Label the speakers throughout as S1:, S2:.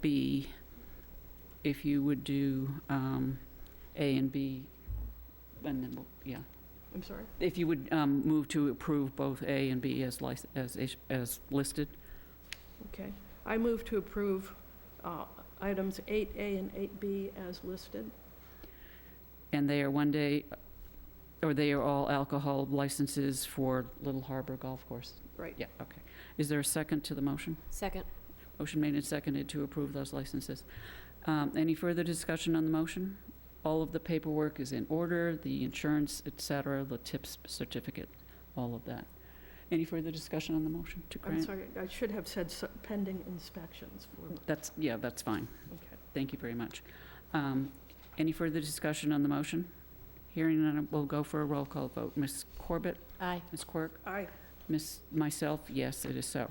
S1: B, if you would do um, A and B, and then, we'll- yeah.
S2: I'm sorry?
S1: If you would um, move to approve both A and B as lic- as is- as listed.
S2: Okay. I move to approve uh, items 8A and 8B as listed.
S1: And they are one day, or they are all alcohol licenses for Little Harbor Golf Course.
S2: Right.
S1: Yeah, okay. Is there a second to the motion?
S3: Second.
S1: Motion made and seconded to approve those licenses. Um, Any further discussion on the motion? All of the paperwork is in order, the insurance, et cetera, the TIPS certificate, all of that. Any further discussion on the motion to
S2: I'm
S1: grant?
S2: sorry, I should have said s- pending inspections for,
S1: That's, yeah, that's fine.
S2: okay.
S1: Thank you very much. Um, Any further discussion on the motion? Hearing none, we'll go for a roll call vote. Ms. Corbett?
S3: Aye.
S1: Ms. Quirk?
S2: Aye.
S1: Miss, myself, yes, it is so.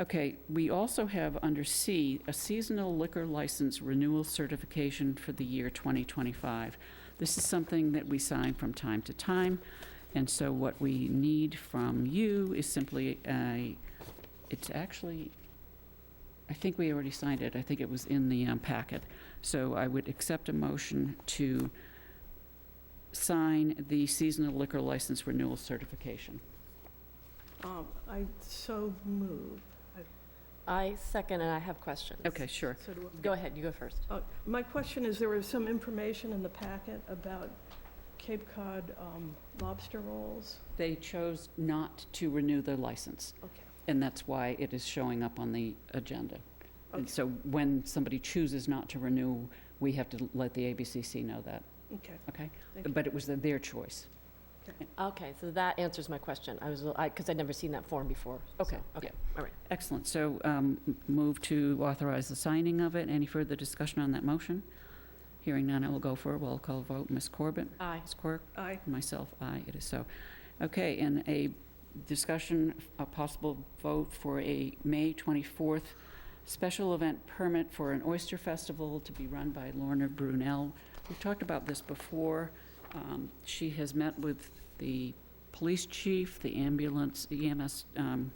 S1: Okay, we also have under C, a seasonal liquor license renewal certification for the year 2025. This is something that we sign from time to time, and so what we need from you is simply a, it's actually, I think we already signed it, I think it was in the um, packet. So I would accept a motion to sign the seasonal liquor license renewal certification.
S2: Um, I so move.
S3: I second, and I have questions.
S1: Okay, sure.
S2: So do I.
S3: Go ahead, you go first.
S2: Uh, My question is, there was some information in the packet about Cape Cod um, lobster rolls.
S1: They chose not to renew their license,
S2: Okay.
S1: and that's why it is showing up on the agenda. And
S2: Okay.
S1: so when somebody chooses not to renew, we have to let the ABCC know that,
S2: Okay.
S1: okay?
S2: Thank you.
S1: But it was their choice.
S3: Okay, so that answers my question. I was, I, because I'd never seen that form before. so-
S1: Okay,
S3: Okay, all right.
S1: Excellent. So um, m- move to authorize the signing of it. Any further discussion on that motion? Hearing none, I will go for a roll call vote. Ms. Corbett?
S3: Aye.
S1: Ms. Quirk?
S2: Aye.
S1: Myself, aye, it is so. Okay, and a discussion, a possible vote for a May 24th special event permit for an oyster festival to be run by Lorna Brunel. We've talked about this before. Um, She has met with the police chief, the ambulance, the EMS um,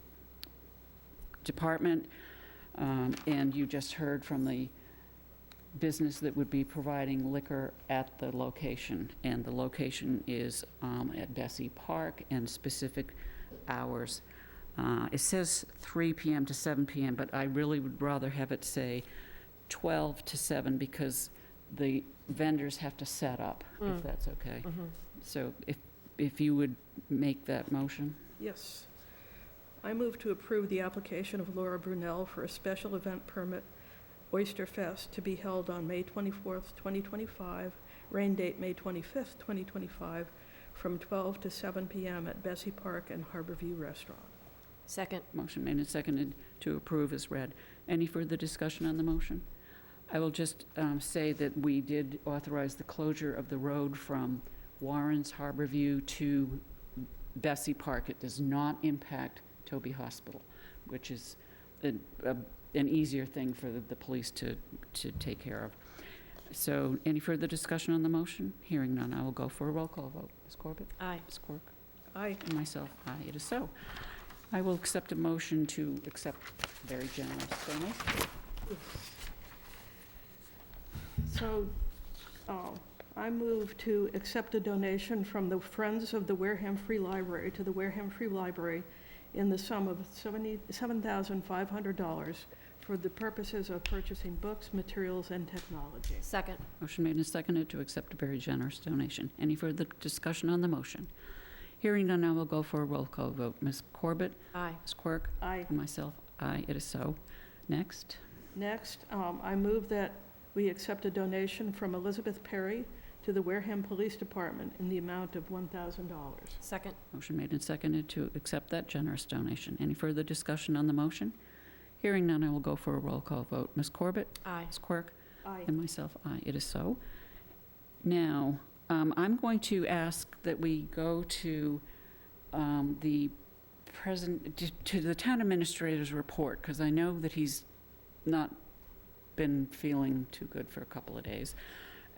S1: department, um, and you just heard from the business that would be providing liquor at the location, and the location is um, at Bessie Park and specific hours. Uh, It says 3 PM to 7 PM, but I really would rather have it say 12 to 7 because the vendors have to set up, if
S3: Mm.
S1: that's okay.
S3: Mhm.
S1: So if, if you would make that motion?
S2: Yes. I move to approve the application of Laura Brunel for a special event permit, Oyster Fest, to be held on May 24th, 2025, rain date May 25th, 2025, from 12 to 7 p.m. at Bessie Park and Harborview Restaurant.
S3: Second.
S1: Motion made and seconded to approve is read. Any further discussion on the motion? I will just um, say that we did authorize the closure of the road from Warren's Harbor View to Bessie Park. It does not impact Toby Hospital, which is an a- an easier thing for the- the police to, to take care of. So any further discussion on the motion? Hearing none, I will go for a roll call vote. Ms. Corbett?
S3: Aye.
S1: Ms. Quirk?
S2: Aye.
S1: And Myself, aye, it is so. I will accept a motion to accept very generous donation.
S2: So, oh, I move to accept a donation from the Friends of the Wareham Free Library to the Wareham Free Library in the sum of seventy seven thousand five hundred dollars for the purposes of purchasing books, materials, and technology.
S3: Second.
S1: Motion made and seconded to accept a very generous donation. Any further discussion on the motion? Hearing none, I will go for a roll call vote. Ms. Corbett,
S3: Aye.
S1: Ms. Quirk,
S2: Aye.
S1: and myself, aye, it is so. Next,
S2: Next, um, I move that we accept a donation from Elizabeth Perry to the Wareham Police Department in the amount of one thousand dollars.
S3: Second.
S1: motion made and seconded to accept that generous donation. Any further discussion on the motion? Hearing none, I will go for a roll call vote. Ms. Corbett,
S3: Aye.
S1: Ms. Quirk,
S2: Aye.
S1: And myself, aye, it is so. Now, um, I'm going to ask that we go to um, the present, to- to the town administrator's report, because I know that he's not been feeling too good for a couple of days.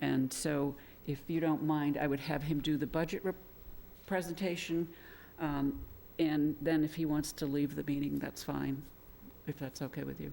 S1: And so if you don't mind, I would have him do the budget rep- presentation. um, And then if he wants to leave the meeting, that's fine, if that's okay with you.